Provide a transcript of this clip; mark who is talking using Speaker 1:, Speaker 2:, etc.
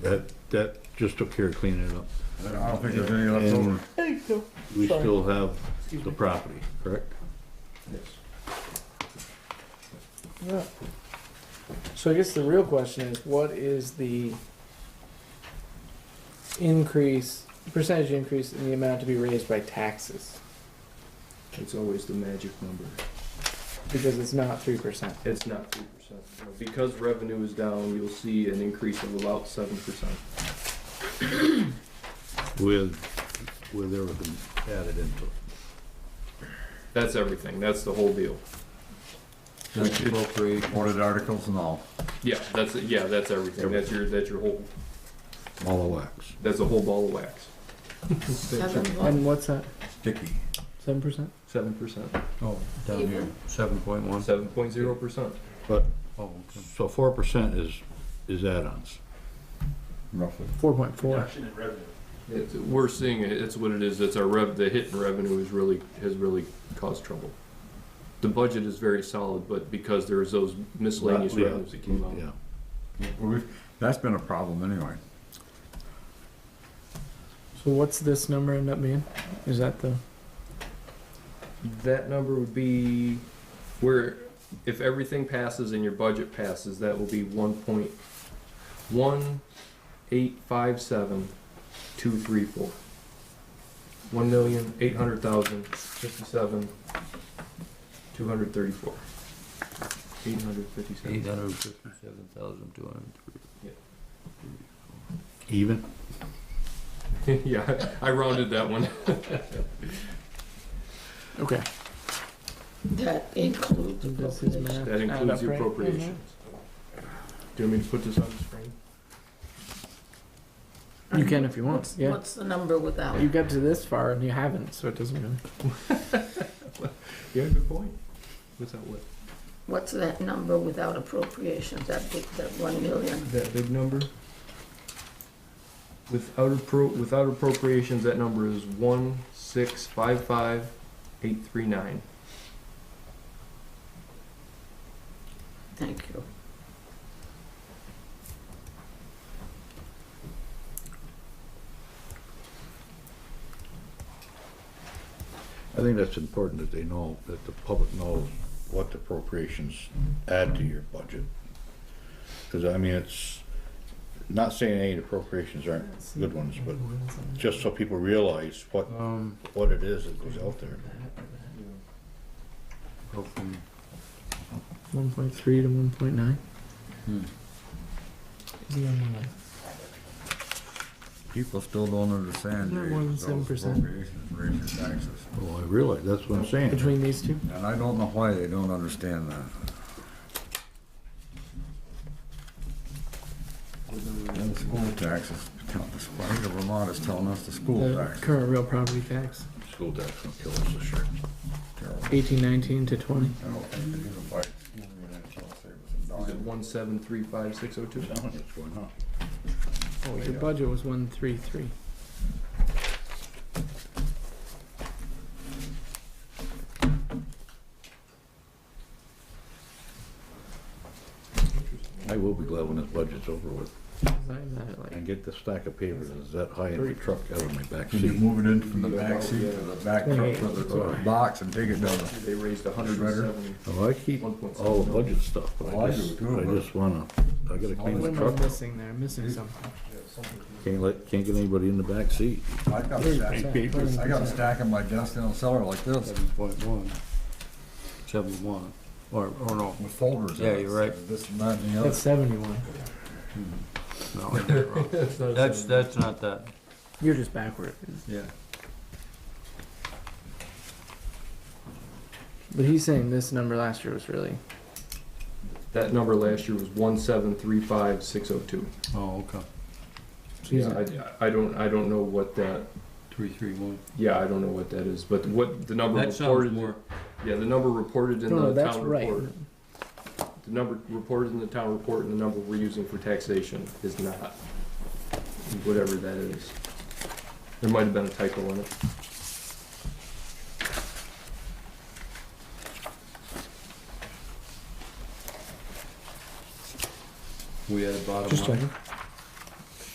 Speaker 1: that, that just took care of cleaning it up.
Speaker 2: I don't think there's any left
Speaker 1: And-
Speaker 2: over.
Speaker 1: We
Speaker 3: Sorry.
Speaker 1: still have the property, correct?
Speaker 3: Yeah. So I guess the real question is, what is the increase, percentage increase in the amount to be raised by taxes?
Speaker 4: It's always the magic number.
Speaker 3: Because it's not three percent.
Speaker 4: It's not three percent. Because revenue is down, you'll see an increase of about seven percent.
Speaker 1: With, with everything added into it.
Speaker 4: That's everything. That's the whole deal.
Speaker 2: Just appropriate. Ordered articles and all,
Speaker 4: Yeah, that's yeah, that's everything. That's your that's your whole
Speaker 1: all the wax.
Speaker 4: that's a whole ball of wax.
Speaker 5: Seven
Speaker 3: And what's that?
Speaker 2: sticky.
Speaker 3: Seven percent?
Speaker 4: Seven percent.
Speaker 2: Oh,
Speaker 5: down here,
Speaker 2: seven point one.
Speaker 4: Seven point zero percent.
Speaker 1: But,
Speaker 2: Oh, okay.
Speaker 1: so four percent is, is add-ons.
Speaker 2: roughly.
Speaker 3: Four point four.
Speaker 4: It's, we're seeing it. It's what it is. It's our rev. The hit in revenue is really has really caused trouble. The budget is very solid, but because there's those miscellaneous
Speaker 1: Yeah,
Speaker 4: revenues that came out.
Speaker 1: Yeah,
Speaker 2: Well, we've, that's been a problem anyway.
Speaker 3: So what's this number end up being? Is that the?
Speaker 4: That number would be where, if everything passes and your budget passes, that will be one point one eight five seven two three four. One million eight hundred thousand fifty-seven two hundred thirty-four. Eight hundred fifty-seven.
Speaker 6: hundred fifty-seven thousand two hundred three.
Speaker 1: even,
Speaker 4: Yeah, I rounded that one.
Speaker 3: Okay.
Speaker 5: That includes
Speaker 3: This is
Speaker 5: appropriations.
Speaker 3: math.
Speaker 4: That
Speaker 3: Add up,
Speaker 4: includes your
Speaker 3: right? Mm-hmm.
Speaker 4: appropriations. Do you want me to put this on the screen?
Speaker 3: Mhm. You can if you want.
Speaker 5: What's-
Speaker 3: Yeah.
Speaker 5: What's the number without?
Speaker 3: You got to this far and you haven't, so it doesn't really.
Speaker 4: Yeah, good point. What's that, what?
Speaker 5: What's that number without appropriations, that big, that one million?
Speaker 4: that big number. Without appro, without appropriations, that number is one, six, five, five, eight, three, nine.
Speaker 5: Thank you.
Speaker 1: I think that's important that they know, that the public knows what the appropriations add to your budget. Cause I mean, it's, not saying any appropriations aren't good ones, but just so people realize what,
Speaker 6: Um,
Speaker 1: what it is that goes out there.
Speaker 6: go from,
Speaker 3: One point three to one point nine.
Speaker 6: hmm,
Speaker 2: People still don't understand.
Speaker 3: Not
Speaker 2: these-
Speaker 3: more than
Speaker 2: those
Speaker 3: 7%.
Speaker 2: appropriations Raise your taxes.
Speaker 1: Well, oh, I realize, that's what I'm saying.
Speaker 3: Between these two.
Speaker 2: And I don't know why they don't understand that. And the school taxes, the state of Vermont is telling us the school
Speaker 3: The
Speaker 2: tax.
Speaker 3: current real property tax,
Speaker 1: School tax gonna kill us this year.
Speaker 2: Terrible.
Speaker 3: eighteen nineteen to twenty.
Speaker 2: I don't think they do it by school unit, so I'll say it was
Speaker 4: Is
Speaker 2: a
Speaker 4: it
Speaker 2: dime.
Speaker 4: one, seven, three, five, six, oh, two?
Speaker 1: I'm telling you, it's going up.
Speaker 3: Oh, your budget was one three three.
Speaker 1: I will be glad when this budget's over with
Speaker 3: I'm at like
Speaker 1: and get the stack of papers that's that high in the truck out of my back
Speaker 2: Can you
Speaker 1: seat.
Speaker 2: move it in from the back seat to the back truck to the, to the box and take it down the?
Speaker 4: They raised a hundred and seven.
Speaker 1: Well, I keep all the budget stuff, but
Speaker 2: Well, I
Speaker 1: Oh, I
Speaker 2: do
Speaker 1: just,
Speaker 2: too,
Speaker 1: I
Speaker 2: but-
Speaker 1: just wanna, I gotta
Speaker 3: what
Speaker 1: clean the
Speaker 3: am I
Speaker 1: truck. up.
Speaker 3: missing there? Missing something.
Speaker 1: Can't let, can't get anybody in the back seat.
Speaker 2: I got a stack, I got a stack on my desk in the cellar like this
Speaker 6: seven point one, seven one, or, or no,
Speaker 2: with folders in it.
Speaker 6: Yeah, you're right.
Speaker 2: This and that and the
Speaker 3: That's
Speaker 2: other.
Speaker 3: seventy one.
Speaker 6: no, I did it wrong. That's, that's not that.
Speaker 3: You're just backward.
Speaker 6: Yeah.
Speaker 3: But he's saying this number last year was really
Speaker 4: That number last year was one, seven, three, five, six, oh, two.
Speaker 6: Oh, okay,
Speaker 3: He's-
Speaker 4: Yeah, I, I don't, I don't know what that,
Speaker 6: three, three, one.
Speaker 4: yeah, I don't know what that is, but what the number
Speaker 6: That sounds
Speaker 4: reported,
Speaker 6: more,
Speaker 4: yeah, the number reported in
Speaker 3: No, no,
Speaker 4: the
Speaker 3: Oh, that's
Speaker 4: town
Speaker 3: right.
Speaker 4: report. The number reported in the town report and the number we're using for taxation is not, whatever that is. There might have been a typo in it.
Speaker 6: we had a bottom
Speaker 3: Just
Speaker 6: line.
Speaker 3: checking.